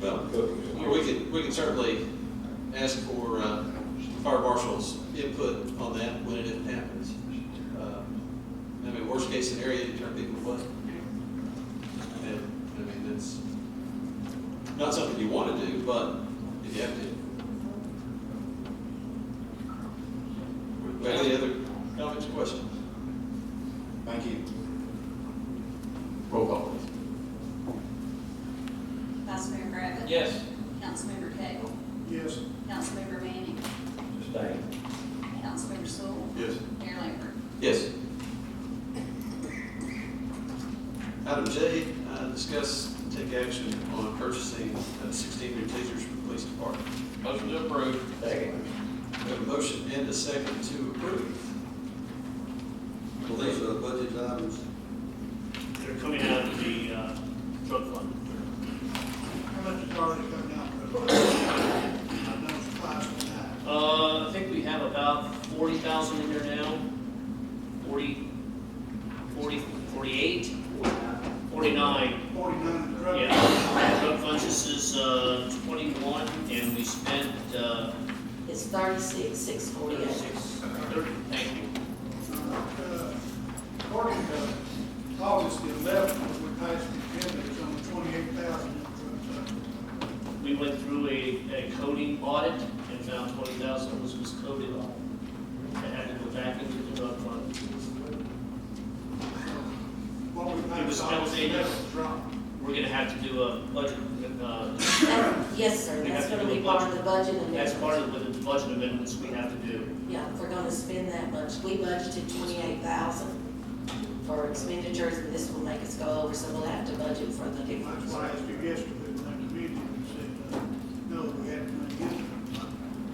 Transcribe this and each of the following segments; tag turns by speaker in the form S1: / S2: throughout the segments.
S1: Well, we could, we could certainly ask for, uh, fire marshal's input on that when it happens. Uh, I mean, worst case scenario, you turn people away. And, I mean, that's not something you want to do, but if you have to. Any other comments or questions?
S2: Thank you. Roll call, please.
S3: Vice Mayor Griffin.
S4: Yes.
S3: Councilmember Cagle.
S5: Yes.
S3: Councilmember Manning.
S4: Abstain.
S3: Councilmember Sewell.
S2: Yes.
S3: Mayor Lambert.
S1: Yes. Item J, uh, discuss and take action on purchasing uh, sixteen new tasers for the police department.
S4: Motion to approve. Second.
S1: We have a motion and a second to approve.
S6: Well, these are budget items.
S7: They're coming out of the uh, drug fund.
S5: How much is already coming out? I know it's five and nine.
S7: Uh, I think we have about forty thousand in there now, forty, forty, forty-eight, forty-nine.
S5: Forty-nine is correct.
S7: Yeah, drug fund, this is uh, twenty-one, and we spent uh,
S8: It's thirty-six, six forty-eight.
S7: thirty-six, thirty, thank you.
S5: Uh, According to August the eleventh, we passed the agenda, it's on twenty-eight thousand. uh,
S7: We went through a, a coding audit and found twenty thousand was miscoded on. And had to go back into the drug fund.
S5: What we
S7: It was
S5: passed August the
S7: outdated.
S5: eleventh, dropped.
S7: We're gonna have to do a budget, uh,
S8: Yes, sir,
S7: We
S8: that's
S7: have to
S8: gonna
S7: do
S8: be
S7: a
S8: part of the budget and
S7: That's part of the the budget amendments we have to do.
S8: Yeah, if we're gonna spend that much. We budgeted twenty-eight thousand for expenditures, and this will make us go over, so we'll have to budget for the
S5: That's
S8: difference.
S5: why I asked you yesterday in that committee, and said, uh, no, we had none in there.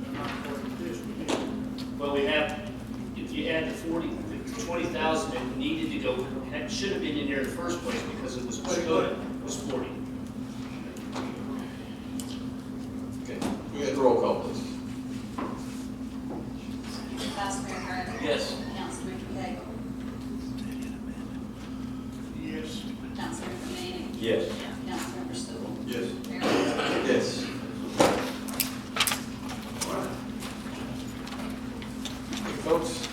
S5: They're uh, not part of this, we did.
S7: But we have, if you add the forty, the twenty thousand that needed to go, had, should have been in there in the first place because it was miscoded, was forty.
S1: Okay.
S2: We had roll call, please.
S3: Vice Mayor Griffin.
S7: Yes.
S3: Councilmember Cagle.
S5: Yes.
S3: Councilmember Manning.
S4: Yes.
S3: Councilmember Sewell.
S6: Yes.
S3: Mayor Lambert.
S1: Yes. All right. Hey, folks,